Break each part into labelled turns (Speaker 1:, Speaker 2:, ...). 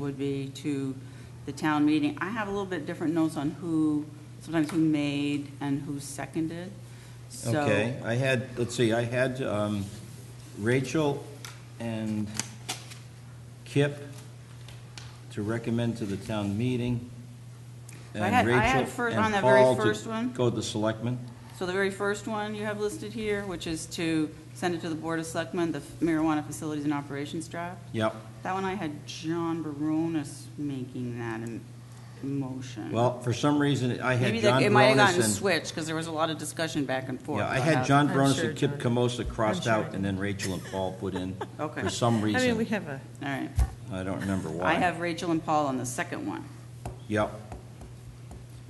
Speaker 1: would be to the town meeting. I have a little bit different notes on who, sometimes who made and who seconded. So-
Speaker 2: Okay, I had, let's see, I had um, Rachel and Kip to recommend to the town meeting.
Speaker 1: I
Speaker 2: and
Speaker 1: had- I had
Speaker 2: Rachel
Speaker 1: fir-
Speaker 2: and
Speaker 1: on that very
Speaker 2: Paul to
Speaker 1: first one.
Speaker 2: Go to the selectmen.
Speaker 1: So the very first one you have listed here, which is to send it to the Board of Selectmen, the marijuana facilities and operations draft.
Speaker 2: Yep.
Speaker 1: That one I had John Baronis making that in motion.
Speaker 2: Well, for some reason, I had
Speaker 1: Maybe
Speaker 2: John
Speaker 1: that, it might have
Speaker 2: Baronis
Speaker 1: gotten
Speaker 2: and.
Speaker 1: switched, because there was a lot of discussion back and forth.
Speaker 2: Yeah, I
Speaker 1: about
Speaker 2: had
Speaker 1: how-
Speaker 2: John
Speaker 3: I'm
Speaker 2: Baronis
Speaker 3: sure
Speaker 2: and Kip
Speaker 3: John-
Speaker 2: Camosa crossed
Speaker 3: sure I
Speaker 2: out, and then Rachel and Paul put in.
Speaker 1: Okay.
Speaker 2: For some
Speaker 3: I mean, we
Speaker 2: reason.
Speaker 3: have a,
Speaker 1: All right.
Speaker 2: I don't remember why.
Speaker 1: I have Rachel and Paul on the second one.
Speaker 2: Yep.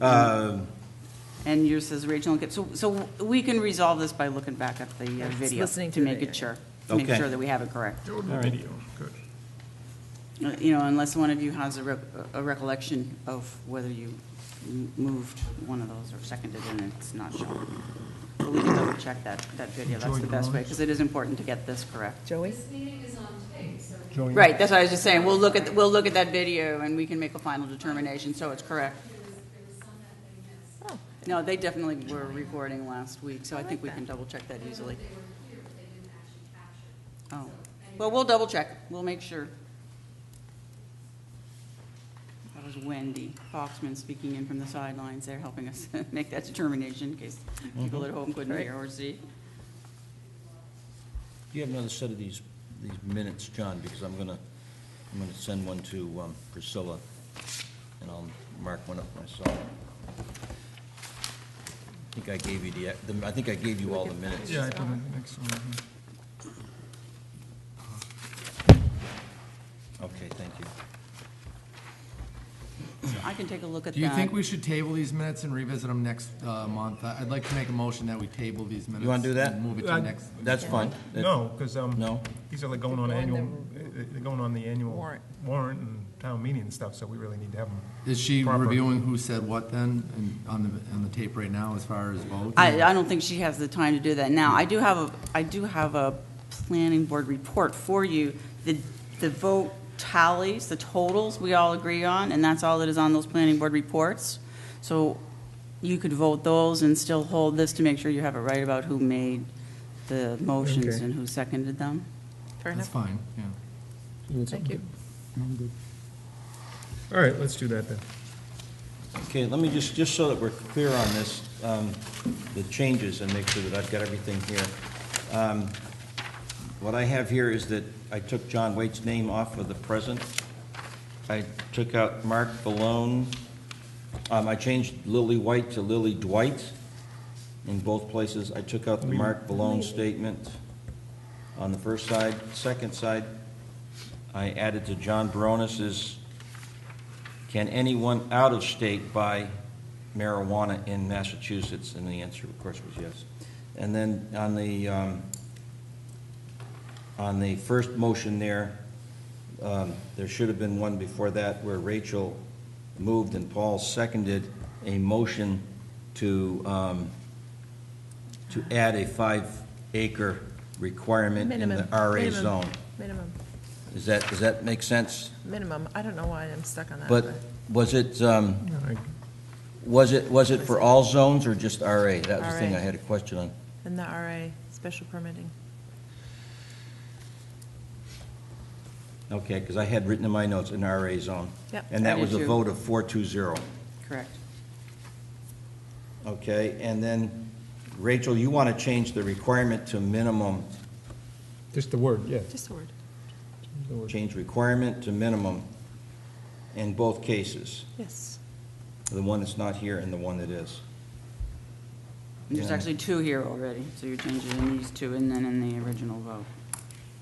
Speaker 2: Um,
Speaker 1: And yours says Rachel and Kip. So, so we can resolve this by looking back at the uh,
Speaker 3: Just
Speaker 1: video.
Speaker 3: listening to the
Speaker 1: make
Speaker 3: video.
Speaker 1: it sure, to make
Speaker 2: Okay.
Speaker 1: sure that we have it correct.
Speaker 4: There will be video, good.
Speaker 1: Uh, You know, unless one of you has a rec- a recollection of whether you m- moved one of those or seconded and it's not shown. But we can double check that, that video. That's
Speaker 4: Joy
Speaker 1: the best way,
Speaker 4: Barnes?
Speaker 1: because it is important to get this correct.
Speaker 3: Joey?
Speaker 5: This meeting is on tape, so
Speaker 4: Joey?
Speaker 1: Right, that's what I was just saying. We'll look at, we'll look at that video and we can make a final determination, so it's correct.
Speaker 5: there was, there was some that they missed.
Speaker 3: Oh,
Speaker 1: No, they definitely were recording last week, so I think
Speaker 3: like
Speaker 1: we
Speaker 3: that.
Speaker 1: can double check that easily.
Speaker 5: They were here, but they didn't actually capture.
Speaker 1: Oh, well, we'll double check, we'll make sure. That was Wendy Foxman speaking in from the sidelines there, helping us make that determination in case people
Speaker 6: Mm-hmm.
Speaker 1: at home couldn't hear or see.
Speaker 2: Do you have another set of these, these minutes, John, because I'm gonna, I'm gonna send one to um, Priscilla, and I'll mark one up myself. I think I gave you the, the- I think I gave you all the minutes.
Speaker 4: Yeah, I put in the next one.
Speaker 2: Okay, thank you.
Speaker 1: So I can take a look at that.
Speaker 6: Do you think we should table these minutes and revisit them next uh, month? I- I'd like to make a motion that we table these minutes.
Speaker 2: wanna do that?
Speaker 6: and Move it to
Speaker 4: Uh,
Speaker 6: the next.
Speaker 2: That's fine. That-
Speaker 4: No, because, um,
Speaker 2: No?
Speaker 4: these are like going on
Speaker 3: They're going
Speaker 4: annual,
Speaker 3: the-
Speaker 4: uh, they're going on the annual
Speaker 3: Warrant.
Speaker 4: warrant and town meeting and stuff, so we really need to have them.
Speaker 6: Is she
Speaker 4: Proper.
Speaker 6: reviewing who said what then, and on the, on the tape right now as far as votes?
Speaker 1: I, I don't think she has the time to do that now. I do have a, I do have a planning board report for you. The, the vote tallies, the totals we all agree on, and that's all that is on those planning board reports. So you could vote those and still hold this to make sure you have it right about who made the motions
Speaker 4: Okay.
Speaker 1: and who seconded them.
Speaker 3: fair
Speaker 6: That's
Speaker 3: enough.
Speaker 6: fine, yeah.
Speaker 3: Thank you.
Speaker 4: All right, let's do that then.
Speaker 2: Okay, let me just, just so that we're clear on this, um, the changes, and make sure that I've got everything here. Um, What I have here is that I took John Waite's name off of the present. I took out Mark Balone. Um, I changed Lily White to Lily Dwight in both places. I took out the Mark Balone statement on the first side. Second side, I added to John Baronis's can anyone out of state buy marijuana in Massachusetts? And the answer, of course, was yes. And then on the, um, on the first motion there, um, there should have been one before that where Rachel moved and Paul seconded a motion to, um, to add a five-acre requirement in the
Speaker 3: Minimum,
Speaker 2: RA
Speaker 3: minimum,
Speaker 2: zone.
Speaker 3: Minimum,
Speaker 2: Is that, does that make sense?
Speaker 3: minimum. I don't know why I'm stuck on that.
Speaker 2: But was it, um,
Speaker 4: All right.
Speaker 2: Was it, was it for all zones or just RA? That was the thing I
Speaker 3: RA.
Speaker 2: had a question on.
Speaker 3: And the RA, special permitting.
Speaker 2: Okay, because I had written in my notes, an RA zone.
Speaker 3: Yep.
Speaker 2: And
Speaker 1: I
Speaker 2: that
Speaker 1: did
Speaker 2: was a
Speaker 1: too.
Speaker 2: vote of four two zero.
Speaker 1: Correct.
Speaker 2: Okay, and then Rachel, you want to change the requirement to minimum,
Speaker 4: Just the word, yeah.
Speaker 3: Just a word.
Speaker 4: the word.
Speaker 2: change requirement to minimum in both cases,
Speaker 3: Yes.
Speaker 2: the one that's not here and the one that is.
Speaker 1: And There's
Speaker 2: Yeah.
Speaker 1: actually two here already, so you're changing these two and then in the original vote.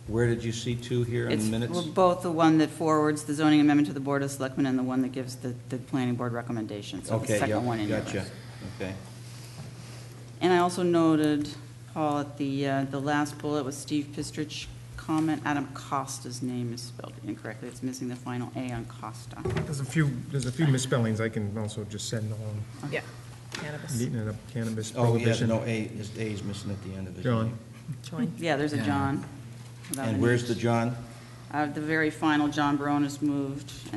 Speaker 2: Where did you see two here in
Speaker 1: It's
Speaker 2: the minutes?
Speaker 1: well, both the one that forwards the zoning amendment to the Board of Selectmen and the one that gives the, the planning board recommendations. So the
Speaker 2: Okay,
Speaker 1: second one
Speaker 2: yeah,
Speaker 1: in there.
Speaker 2: gotcha, okay.
Speaker 1: And I also noted, Paul, at the, uh, the last bullet was Steve Pistrich comment, Adam Costa's name is spelled incorrectly. It's missing the final A on Costa.
Speaker 4: There's a few, there's a few misspellings I can also just send along,
Speaker 3: Yeah. Cannabis.
Speaker 4: neating it up, cannabis
Speaker 2: Oh, yeah, no,
Speaker 4: prohibition.
Speaker 2: A, his A is missing at the end of his
Speaker 4: John.
Speaker 2: name.
Speaker 3: Join.
Speaker 1: Yeah, there's a
Speaker 6: Yeah.
Speaker 1: John. without an
Speaker 2: And
Speaker 1: E.
Speaker 2: where's the John?
Speaker 1: Uh, the very final, John Baronis moved,